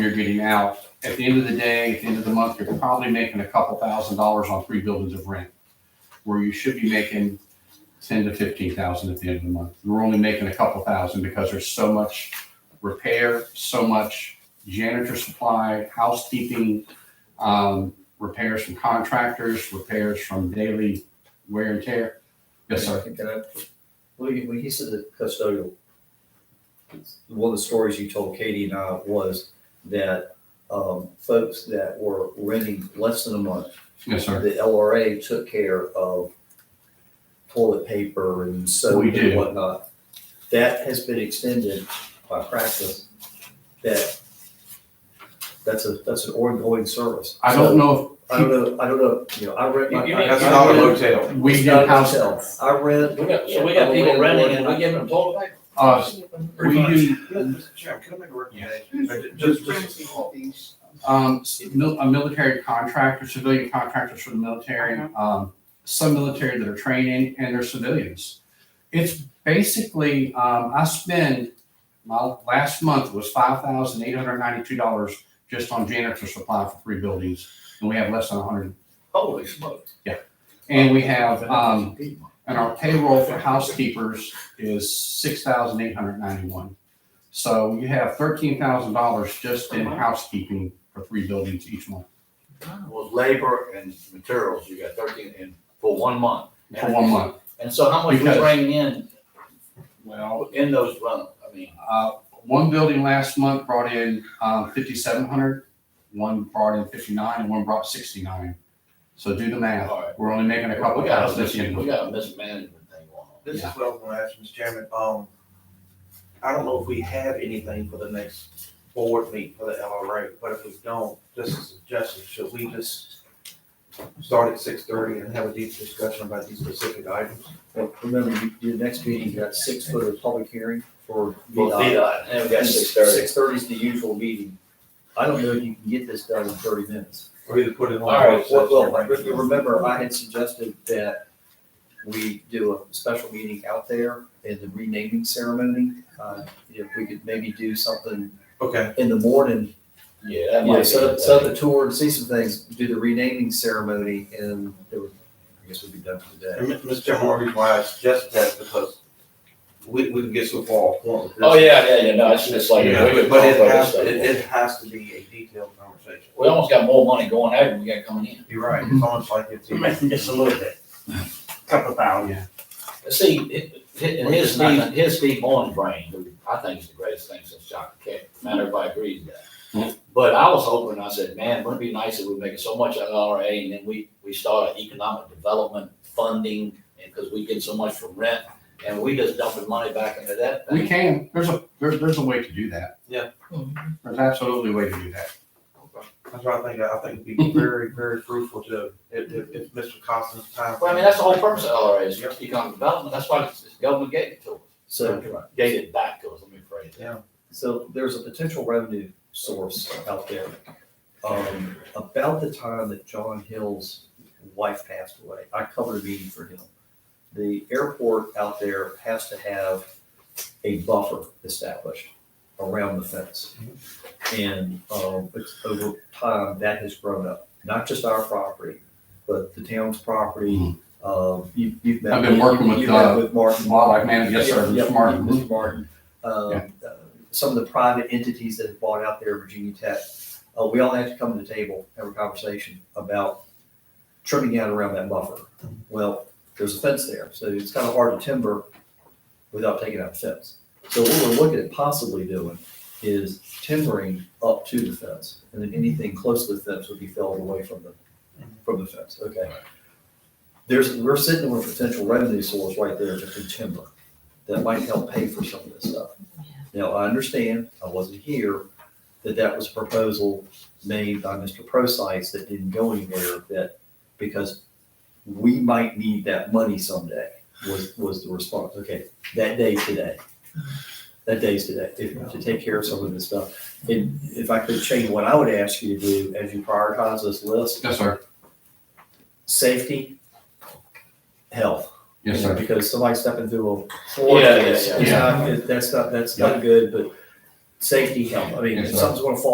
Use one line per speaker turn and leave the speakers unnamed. you're getting out. At the end of the day, at the end of the month, you're probably making a couple thousand dollars on three buildings of rent, where you should be making ten to fifteen thousand at the end of the month. We're only making a couple thousand because there's so much repair, so much janitor supply, housekeeping, um, repairs from contractors, repairs from daily wear and tear. Yes, sir.
Can I, when you, when you said the custodial, one of the stories you told Katie and I was that, um, folks that were renting less than a month,
Yes, sir.
the LRA took care of toilet paper and soap
We
and
do.
whatnot. That has been extended by practice, that, that's a, that's an ongoing service.
I don't know
I don't know, I don't know, you know, I rent my.
You- you mean-
That's not a motel.
if we
It's
did
not a
house.
hotel. I rent.
We got, so we got people renting and we give them toilet paper?
Uh, we do,
Mr. Chairman, can I make a recommendation? Uh, ju- Just, just,
um, s- mil- a military contractor, civilian contractors from the military, um, some military that are training and they're civilians. It's basically, um, I spend, my last month was five thousand eight hundred ninety-two dollars just on janitor supply for three buildings, and we have less than a hundred.
Holy smokes.
And we have, um, and our payroll for housekeepers is six thousand eight hundred ninety-one. So you have thirteen thousand dollars just in housekeeping for three buildings each month.
Well, labor and materials, you got thirteen in, for one month.
for one month.
And so how much we
Because-
bringing in,
Well,
in those rentals, I mean,
uh, one building last month brought in, um, fifty-seven hundred, one brought in fifty-nine, and one brought sixty-nine. So do the math,
all right.
we're only making a couple
We got a,
thousand
mis-
this year.
we got a mismanagement thing going on.
this is what I'm gonna ask, Mr. Chairman, um, I don't know if we have anything for the next board meet for the LRA, but if we don't, just a suggestion, should we just start at six thirty and have a deep discussion about these specific items?
Well, Remember, you- your next meeting, you got six foot of public hearing for
Well,
VDOT.
VDOT, and we got six thirty.
Six thirty is the usual meeting. I don't know if you can get this done in thirty minutes.
Or either put it on.
All right,
Well, well, but you remember, I had suggested that we do a special meeting out there in the renaming ceremony. Uh, If we could maybe do something
Okay,
in the morning,
Yeah,
you
that might
know,
be.
set
a
up, set up
thing.
the tour and see some things, do the renaming ceremony, and it would- I guess we'd be done for the day.
and Mi- Mr. Chairman, one reason why I suggested that is because we, we can get so far off point with this.
Oh, yeah, yeah, yeah, no, it's just like, we
Yeah,
would
But
talk
it
about
has,
this
it,
stuff.
it has to be a detailed conversation.
We almost got more money going out than we got coming in.
You're right, it's almost like it's.
You mentioned just a little bit, couple thousand.
See, it- it- and his Steve, his Steve Bourne's brain, who I think is the greatest thing since Jock Keck, not everybody agrees with
Hmm.
that. But I was hoping, I said, man, wouldn't it be nice if we make so much out of RA and then we, we start an economic development funding and, cause we get so much from rent and we just dumping money back into that
We
thing.
can, there's a, there's, there's a way to do that.
Yeah.
There's absolutely a way to do that.
That's what I think, I think it'd be very, very fruitful to, if, if, if Mr. Costin's time.
Well, I mean, that's the whole purpose of LRA is economic development. That's why the government gave it to us.
So,
Gave it back to us, let me phrase it.
so there's a potential revenue source out there. Um, about the time that John Hill's wife passed away, I covered a meeting for him. The airport out there has to have a buffer established around the fence. And, um, it's over time, that has grown up, not just our property, but the town's property. Um, you, you've met.
Mm-hmm. I've been working with,
you've met
uh,
With Martin.
Wildlife manager, yes, sir,
Yeah,
Mr.
yeah,
Martin.
Mr. Martin. Um, uh, Some of the private entities that have bought out there, Virginia Tech, uh, we all have to come to the table, have a conversation about trimming out around that buffer. Well, there's a fence there, so it's kind of hard to timber without taking out the fence. So what we're looking at possibly doing is timbering up to the fence, and then anything close to the fence would be felled away from the, from the fence, okay? There's, we're sitting with a potential revenue source right there just in timber that might help pay for some of this stuff. Now, I understand, I wasn't here, that that was a proposal made by Mr. Procyse that didn't go anywhere, that, because we might need that money someday, was, was the response. Okay, that day today. That day's today, if, to take care of some of this stuff. And if I could change what I would ask you to do, as you prioritize this list,
Yes, sir.
safety, health.
Yes,
You know,
sir.
Because somebody stepping through a floor
Yeah, yeah,
is,
yeah.
is not, that's not, that's not good, but safety help, I mean,
Yes,
if
sir.
something's gonna fall